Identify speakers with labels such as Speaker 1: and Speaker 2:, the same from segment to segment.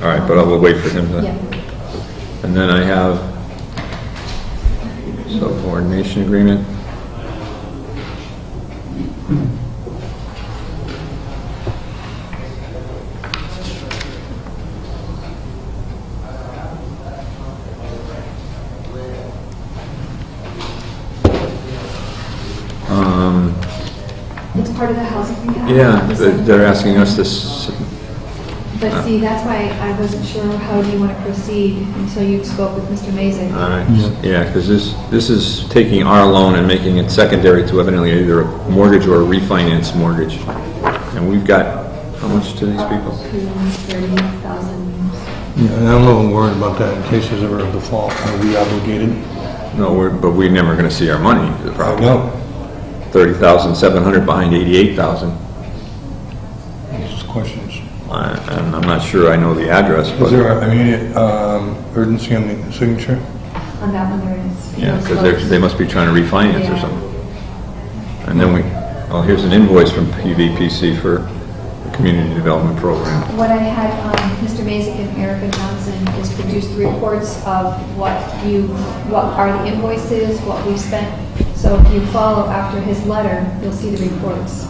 Speaker 1: but I will wait for him to.
Speaker 2: Yeah.
Speaker 1: And then I have subordination agreement. Um,
Speaker 2: It's part of the housing rehab.
Speaker 1: yeah,
Speaker 2: It's
Speaker 1: they're
Speaker 2: like-
Speaker 1: they're asking us to, s-
Speaker 2: But see, that's why I wasn't sure how do you want to proceed until you spoke with Mr. Mazin.
Speaker 1: all right, yeah, because this, this is taking our loan and making it secondary to evidently either a mortgage or a refinance mortgage. And we've got, how much to these people?
Speaker 2: Uh, Thirty thousand.
Speaker 3: Yeah, and I'm a little worried about that in case there's ever a default, are we obligated?
Speaker 1: No, we're, but we're never going to see our money, is the problem.
Speaker 3: No.
Speaker 1: 30,700 behind 88,000.
Speaker 3: Just questions.
Speaker 1: I- And I'm not sure I know the address,
Speaker 3: Is
Speaker 1: but,
Speaker 3: there an immediate um, urgency on the signature?
Speaker 2: On that one there is.
Speaker 1: yeah, because they're, they must be trying to refinance or
Speaker 2: Yeah.
Speaker 1: something. And then we, oh, here's an invoice from PVPC for the Community Development Program.
Speaker 2: What I had, um, Mr. Mazik and Erica Johnson is produce the reports of what you, what are the invoices, what we spent. So if you follow after his letter, you'll see the reports.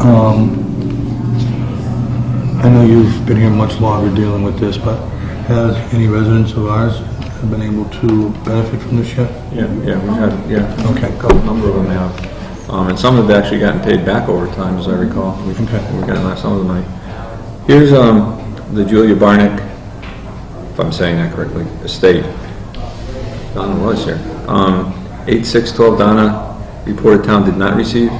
Speaker 3: Um, I know you've been here much longer dealing with this, but has any residents of ours have been able to benefit from this yet?
Speaker 1: Yeah, yeah, we have, yeah.
Speaker 3: Okay,
Speaker 1: A number of them have. Um, and some have actually gotten paid back over time, as I recall. We've,
Speaker 3: Okay.
Speaker 1: we've gotten that- some of the money. Here's, um, the Julia Barnick, if I'm saying that correctly, estate. Donna was here. Um, eight six twelve Donna, reported town did not receive.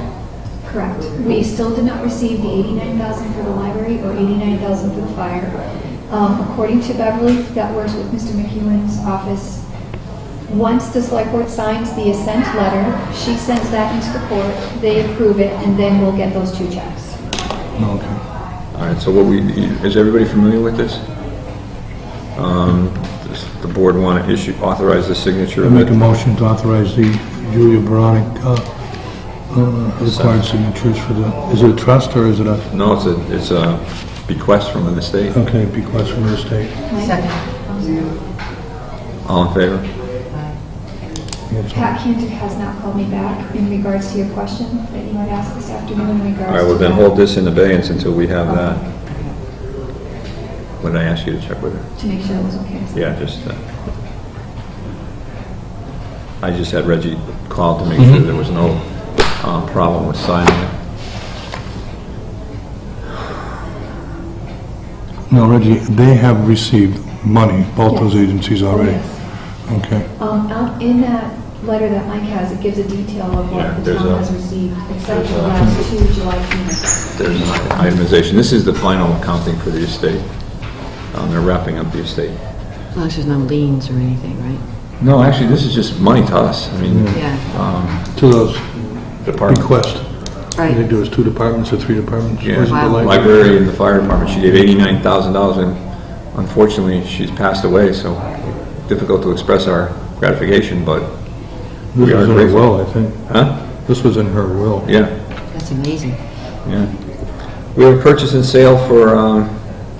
Speaker 2: Correct. We still did not receive the 89,000 for the library or 89,000 for the fire. Um, According to Beverly, that works with Mr. McEwen's office. Once the select board signs the assent letter, she sends that into the court, they approve it, and then we'll get those two checks.
Speaker 3: No, okay.
Speaker 1: All right, so what we, is everybody familiar with this? Um, does the board want to issue, authorize the signature
Speaker 3: I
Speaker 1: of
Speaker 3: make a
Speaker 1: it?
Speaker 3: motion to authorize the Julia Baronic uh, uh, required signatures for the, is it a trust or is it a,
Speaker 1: No, it's a, it's a bequest from an estate.
Speaker 3: okay, bequest from the estate?
Speaker 2: Second.
Speaker 1: All in favor?
Speaker 3: Yes.
Speaker 2: Pat Cantor has not called me back in regards to your question that you had asked this afternoon in regards to...
Speaker 1: All right, well then
Speaker 2: that.
Speaker 1: hold this in abeyance until we have that. What did I ask you to check with her?
Speaker 2: To make sure it was okay.
Speaker 1: Yeah, just, uh, I just had Reggie call to make sure
Speaker 3: Mm-hmm.
Speaker 1: there was no uh, problem with signing it.
Speaker 3: No, Reggie, they have received money, both those
Speaker 2: Yes.
Speaker 3: agencies already?
Speaker 2: Yes.
Speaker 3: Okay.
Speaker 2: Um, out in that letter that Mike has, it gives a detail of
Speaker 1: Yeah,
Speaker 2: what the
Speaker 1: there's
Speaker 2: town
Speaker 1: a-
Speaker 2: has received, except for the
Speaker 1: there's a-
Speaker 2: last two July payments.
Speaker 1: There's an itemization. This is the final accounting for the estate. Um, They're wrapping up the estate.
Speaker 4: As long as there's no liens or anything, right?
Speaker 1: No, actually, this is just money to us. I mean,
Speaker 4: Yeah,
Speaker 3: To those
Speaker 1: department.
Speaker 3: requests, I think
Speaker 4: right.
Speaker 3: there was two departments or three departments.
Speaker 1: Yeah,
Speaker 3: Was it the
Speaker 4: Wow.
Speaker 3: library?
Speaker 1: library and the fire department, she gave eighty-nine thousand dollars, and unfortunately, she's passed away, so difficult to express our gratification, but,
Speaker 3: This
Speaker 1: We are
Speaker 3: was in her
Speaker 1: grateful.
Speaker 3: will, I think.
Speaker 1: huh?
Speaker 3: This was in her will.
Speaker 1: Yeah,
Speaker 4: That's amazing.
Speaker 1: yeah. We have a purchase and sale for um,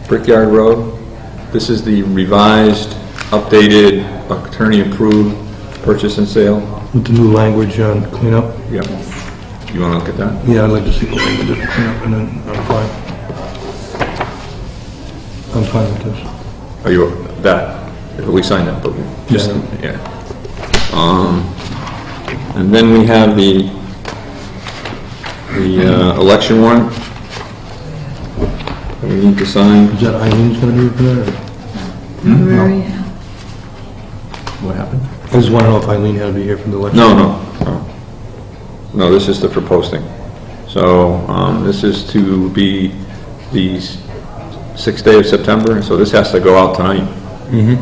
Speaker 1: Brickyard Road. This is the revised, updated, attorney-approved purchase and sale.
Speaker 3: With the new language on cleanup.
Speaker 1: Yep. You wanna look at that?
Speaker 3: Yeah, I'd like to see the language on cleanup and then I'm fine. I'm fine with this.
Speaker 1: Oh, you, that, we signed that, but, just, yeah. Um, and then we have the, the, uh, election warrant. that We need to sign.
Speaker 3: Is that Eileen's gonna be over there? or- No.
Speaker 1: What happened?
Speaker 3: I just wanna know if Eileen had to be here for the election.
Speaker 1: No, no, no. No, this is the for posting. So, um, this is to be the s- sixth day of September, so this has to go out tonight. Mm-hmm.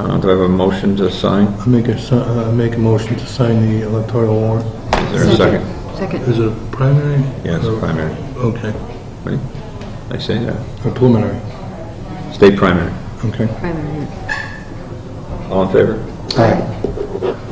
Speaker 1: Uh, do I have a motion to sign?
Speaker 3: I make a, si- uh, make a motion to sign the electoral warrant.
Speaker 1: Is there a second?
Speaker 4: Second.
Speaker 3: Is it a primary?
Speaker 1: Yes,
Speaker 3: Or-
Speaker 1: primary.
Speaker 3: Okay,
Speaker 1: Right? I say that.
Speaker 3: or preliminary,
Speaker 1: State primary.
Speaker 3: okay.
Speaker 4: Primary.
Speaker 1: All in favor?
Speaker 3: Aye.